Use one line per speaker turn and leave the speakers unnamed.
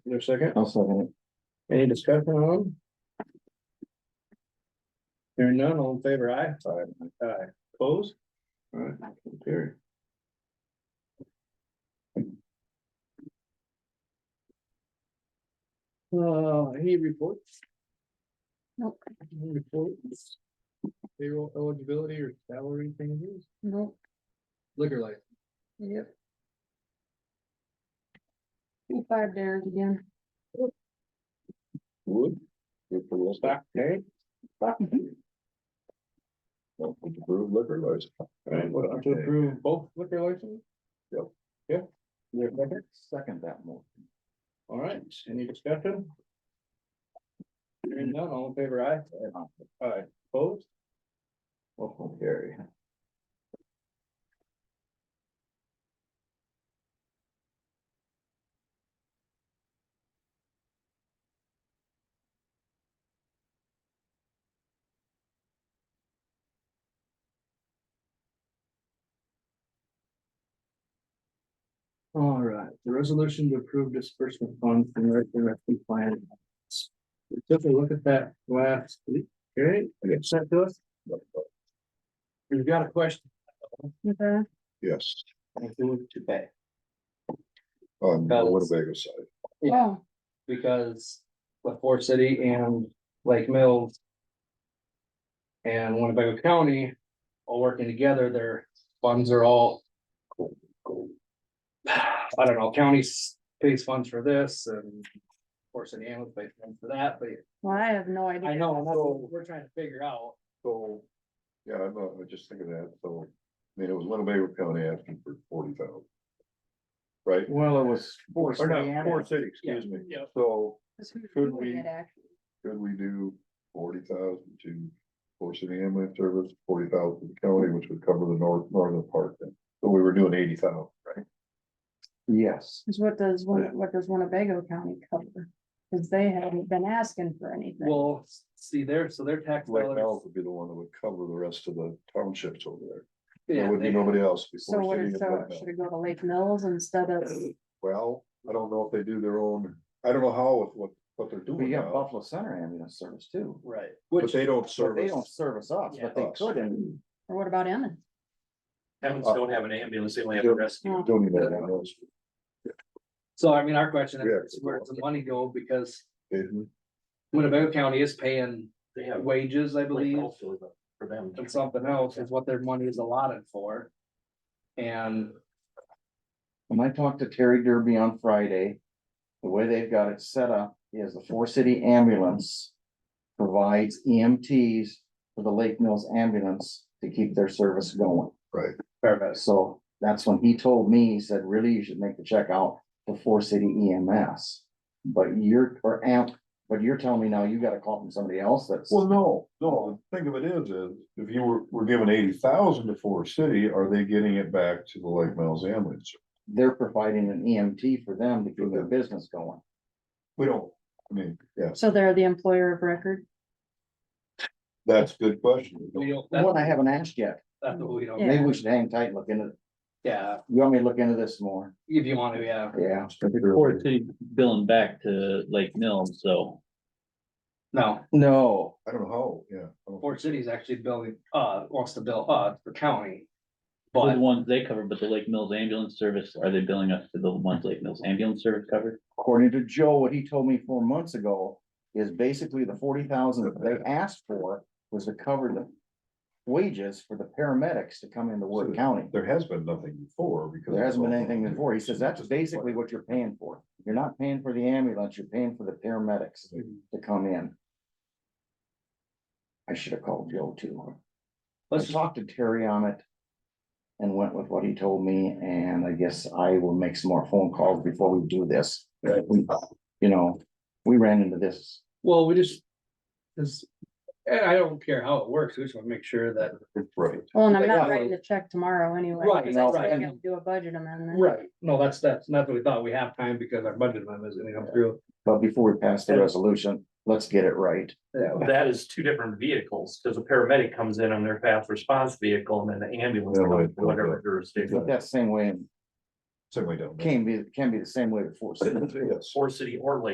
a second?
I'll second
Any discussion on? Hearing none, all in favor, aye?
it. Alright.
Aye. Opposed?
Alright, period.
Uh, any reports?
Nope.
Any Reports? Payroll eligibility or salary changes?
Nope,
Liquor license.
yep. Be fired there again.
Wood.
Good for Will Stock.
Stock tank.
Mm-hmm. Well, Approved liquor license.
Right, what, to
Okay.
approve both liquor licenses?
Yep.
Yeah. Is there a second?
Second that motion.
All right, any discussion? Hearing none, all in favor, aye? Aye. Opposed?
Motion carry.
All right, the resolution to approve disbursement funds from the rescue plan. We took a look at that last week, okay? It got sent to us. We've got a question.
Okay.
Yes,
to pay,
on the
Got it.
Winnebago side.
Yeah.
Oh,
because with Forest City and Lake Mills. And Winnebago County, all working together, their funds are all. I don't know, county s- pays funds for this and of course, any ambulance pays funds for that, but
well, I have no idea.
I know, and that's what we're trying to figure out.
So, yeah, I'm, uh, I'm just thinking that, so, I mean, it was Winnebago County asking for forty thousand. Right?
Well, it was.
Four. Or
City.
not, four city, excuse me.
Yeah.
So
That's who-
Could
who
we-
did actually.
could we do forty thousand to Four City Ambulance Service, forty thousand to the county, which would cover the north, northern part then? So we were doing eighty thousand, right?
Yes.
Cause what does, Win- what does Winnebago County cover? Cause they haven't been asking for anything.
Well, see there, so their tax
Lake
dollars.
Mills would be the one that would cover the rest of the townships over there.
yeah,
There would be
they-
nobody else.
So
before
what
City
is,
and
so
Lake Mills.
should it go to Lake Mills instead of,
Well, I don't know if they do their own, I don't know how, with what, what they're doing now,
Center ambulance service too.
Right.
but
Which
they don't
But they
service.
don't service us,
Yeah.
but they
Us.
could and
or what about Emmett?
Towns don't have an ambulance, they only have a rescue.
No.
Don't even have ambulance.
So I mean, our question
Yeah.
is where does the money go? Because
Mhm.
Winnebago County is paying
They have.
wages, I believe,
For them.
and something else is what their money is allotted for. And
when I talked to Terry Derby on Friday, the way they've got it set up is the four city ambulance provides EMTs for the Lake Mills ambulance to keep their service going.
paramedics,
So that's when he told me, he said, really, you should make the check out to Four City EMS. But you're, or amp, but you're telling me now you gotta call from somebody else that's,
Well, no, no, the thing of it is, is if you were, were given eighty thousand to Forest City, are they getting it back to the Lake Mills ambulance?
they're providing an EMT for them to keep their business going.
We don't, I mean, yes,
So they're the employer of record?
that's a good question.
we don't,
One I
that's,
haven't asked yet.
that's what we don't,
Yeah.
Maybe we should hang tight, and look into,
yeah,
you want me to look into this more?
if you want to, yeah,
Yeah.
Forest City billing back to Lake Mills, so.
no,
No,
I don't know how, yeah. I don't-
Fort City's actually billing, uh, wants to bill, uh, for county.
We're the
But
ones they cover, but the Lake Mills ambulance service, are they billing us to the ones Lake Mills ambulance service covered?
according to Joe, what he told me four months ago is basically the forty thousand that they asked for was to cover the wages for the paramedics to come into Wood County.
There has been nothing before because.
There hasn't been anything before. He says that's basically what you're paying for. You're not paying for the ambulance, you're paying for the paramedics to come in. I should have called Joe too. I
let's,
talked to Terry on it. And went with what he told me, and I guess I will make some more phone calls before we do this. We- You know, we ran into this.
well, we just, cause, and I don't care how it works, we just want to make sure that.
Right.
Well, and I'm
They
not
got
writing the check tomorrow anyway.
Right,
'cause I still
right.
gotta Do a budget amendment.
Right. No, that's, that's not what we thought, we have time because our budget amendment is gonna come through.
But before we pass the resolution, let's get it right.
Yeah.
That is two different vehicles, because a paramedic comes in on their fast response vehicle and then the ambulance,
Yeah, right.
comes to whatever
But
jurisdiction,
that same way,
Same way down. there.
can be, can be the same way before.
Yes.
or city or lake.